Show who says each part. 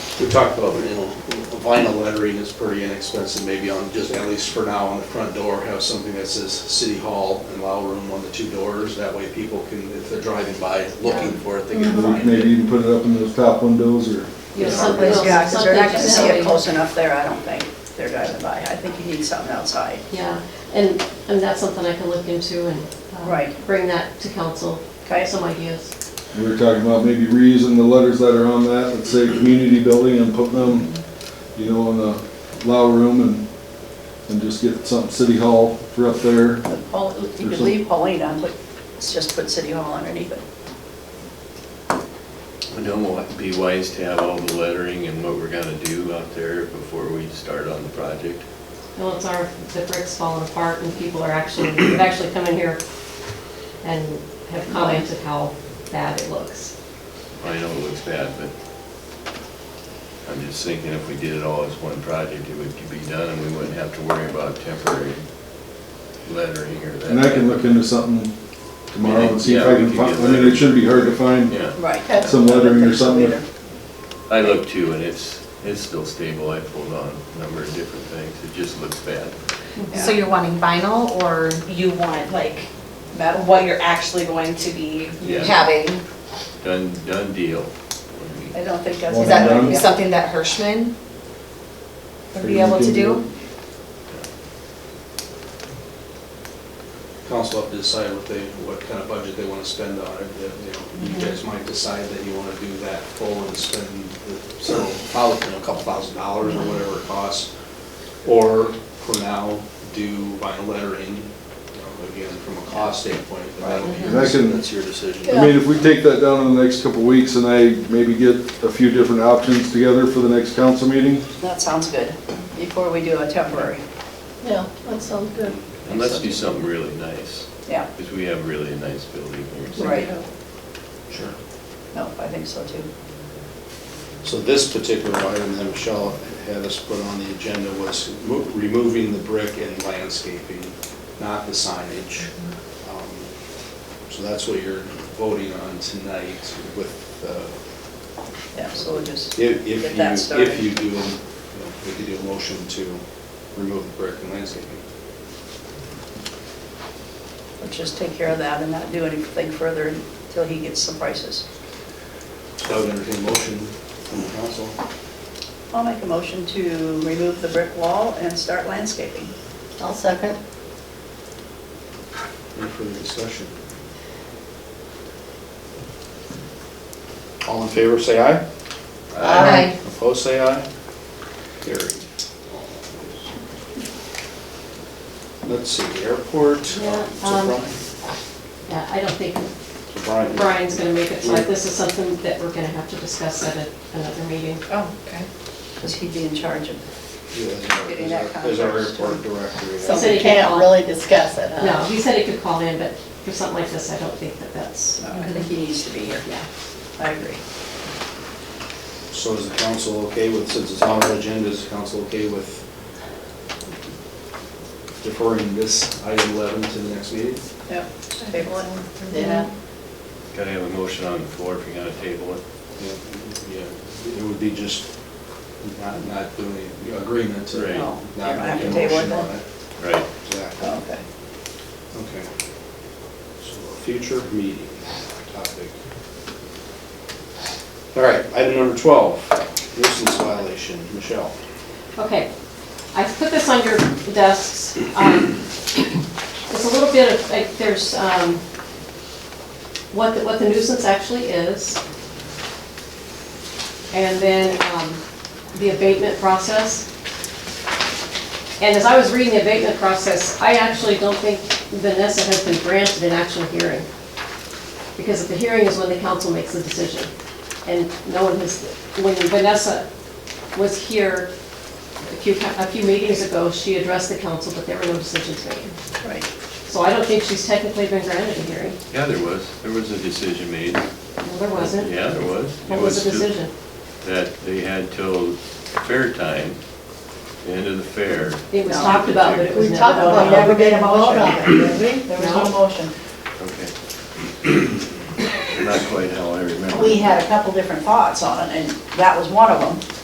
Speaker 1: We talked about, you know, vinyl lettering is pretty inexpensive, maybe on, just at least for now, on the front door, have something that says City Hall and Lounge Room on the two doors. That way people can, if they're driving by looking for it, they can find
Speaker 2: Maybe
Speaker 1: it.
Speaker 2: you can put it up in those top windows or,
Speaker 3: You know, something
Speaker 4: Someplace,
Speaker 3: else,
Speaker 4: yeah, because they're not
Speaker 3: something
Speaker 4: gonna
Speaker 3: to
Speaker 4: see it
Speaker 3: somebody.
Speaker 4: close enough there, I don't think, if they're driving by. I think you need something outside.
Speaker 3: Yeah, and, and that's something I can look into and. uh,
Speaker 4: Right.
Speaker 3: Bring that to council,
Speaker 4: Okay.
Speaker 3: some ideas.
Speaker 2: we were talking about maybe reusing the letters that are on that, let's say, community building and putting them, you know, in the lower room and, and just get something, city hall for up there.
Speaker 4: But Paul- You could leave Pauline on, but it's just put City Hall underneath it.
Speaker 5: I know it'd be wise to have all the lettering and what we're gonna do out there before we start on the project.
Speaker 3: Well, it's our, the brick's falling apart and people are actually, have actually come in here and have commented how bad it looks.
Speaker 5: I know it looks bad, but I'm just thinking if we did it all as one project, it would be done and we wouldn't have to worry about temporary lettering or that.
Speaker 2: And I can look into something tomorrow and see if I
Speaker 5: Yeah, we
Speaker 2: can
Speaker 5: could
Speaker 2: find,
Speaker 5: get
Speaker 2: I mean, it shouldn't be hard to find.
Speaker 5: Yeah,
Speaker 4: Right.
Speaker 2: Some lettering or something.
Speaker 5: I looked too and it's, it's still stable. I pulled on a number of different things. It just looks bad.
Speaker 6: So you're wanting vinyl or you want like
Speaker 4: Metal.
Speaker 6: what you're actually going to be
Speaker 5: Yeah.
Speaker 6: having?
Speaker 5: Done, done deal.
Speaker 4: I don't think that's.
Speaker 2: Well,
Speaker 6: Is
Speaker 2: done.
Speaker 6: that something that Hirschman would be able to do?
Speaker 1: Council have to decide what they, what kind of budget they want to spend on it. That, You know, you guys might decide that you want to do that full and spend the several, thousand, you know, a couple thousand dollars or whatever it costs. Or for now, do vinyl lettering, you know, again, from a cost standpoint, but that'll be,
Speaker 2: And I can-
Speaker 1: that's your decision.
Speaker 2: I mean, if we take that down in the next couple of weeks and I maybe get a few different options together for the next council meeting,
Speaker 4: That sounds good, before we do a temporary.
Speaker 7: Yeah, that sounds good.
Speaker 5: And let's do something really nice,
Speaker 4: Yeah,
Speaker 5: because we have really a nice building here.
Speaker 4: right.
Speaker 1: Sure.
Speaker 4: No, I think so too.
Speaker 1: So this particular item that Michelle had us put on the agenda was mo- removing the brick and landscaping, not the signage. Um, So that's what you're voting on tonight with, uh,
Speaker 4: Yeah, so we'll just,
Speaker 1: if if you,
Speaker 4: Get that started.
Speaker 1: if you do, you know, we could do a motion to remove the brick and landscaping.
Speaker 4: we'll just take care of that and not do anything further until he gets some prices.
Speaker 1: So I would entertain a motion from the council.
Speaker 4: I'll make a motion to remove the brick wall and start landscaping.
Speaker 7: I'll second.
Speaker 1: Any further discussion? All in favor, say aye.
Speaker 7: Aye.
Speaker 1: Opposed, say aye. Carried. Let's see, airport. Uh,
Speaker 3: Yeah,
Speaker 1: So
Speaker 3: um,
Speaker 1: Brian-
Speaker 3: Yeah, I don't think
Speaker 1: so Brian-
Speaker 3: Brian's gonna make it, so this is something that we're gonna have to discuss at a- another meeting.
Speaker 6: Oh, okay.
Speaker 4: Because he'd be in charge of,
Speaker 1: Yeah, as our-
Speaker 4: Getting that
Speaker 1: As our
Speaker 4: conference to-
Speaker 1: airport director. yeah.
Speaker 3: So-
Speaker 7: So we can't really discuss it, huh?
Speaker 4: uh,
Speaker 3: No, he said he could call in, but for something like this, I don't think that that's,
Speaker 4: I think he needs to be here.
Speaker 3: yeah.
Speaker 4: I agree.
Speaker 1: So is the council okay with, since it's on our agenda, is the council okay with deferring this item 11 to the next meeting?
Speaker 4: Yep, table it.
Speaker 7: Yeah.
Speaker 5: Gotta have a motion on the floor if you're gonna table it.
Speaker 1: Yeah, yeah. It would be just not, not doing any agreement to.
Speaker 5: Right.
Speaker 4: No, you
Speaker 1: Not
Speaker 4: don't have
Speaker 1: making
Speaker 4: to
Speaker 1: a
Speaker 4: table it
Speaker 1: motion on
Speaker 4: then.
Speaker 1: it.
Speaker 5: Right.
Speaker 1: Exactly.
Speaker 4: Oh, Okay.
Speaker 1: Okay. So a future meeting topic. All right, item number 12, nuisance violation. Michelle?
Speaker 3: Okay, I put this on your desks. Um, It's a little bit of, like, there's um, what, the- what the nuisance actually is. And then um, the abatement process. And as I was reading the abatement process, I actually don't think Vanessa has been granted an actual hearing. Because at the hearing is when the council makes the decision. And no one has, when Vanessa was here a few, a few meetings ago, she addressed the council, but there were no decisions made.
Speaker 4: Right.
Speaker 3: So I don't think she's technically been granted a hearing.
Speaker 5: Yeah, there was. There was a decision made.
Speaker 3: Well, there wasn't.
Speaker 5: Yeah, there was. It
Speaker 3: What was the
Speaker 5: to-
Speaker 3: decision?
Speaker 5: That they had till fair time, the end of the fair.
Speaker 3: It was
Speaker 4: No.
Speaker 3: talked about, but it was
Speaker 7: We
Speaker 3: never
Speaker 7: talked about
Speaker 3: voted on.
Speaker 7: never getting a vote on it, did we? There was
Speaker 3: No.
Speaker 7: no motion.
Speaker 5: Okay. Not quite how I remember.
Speaker 4: We had a couple different thoughts on it, and that was one of them.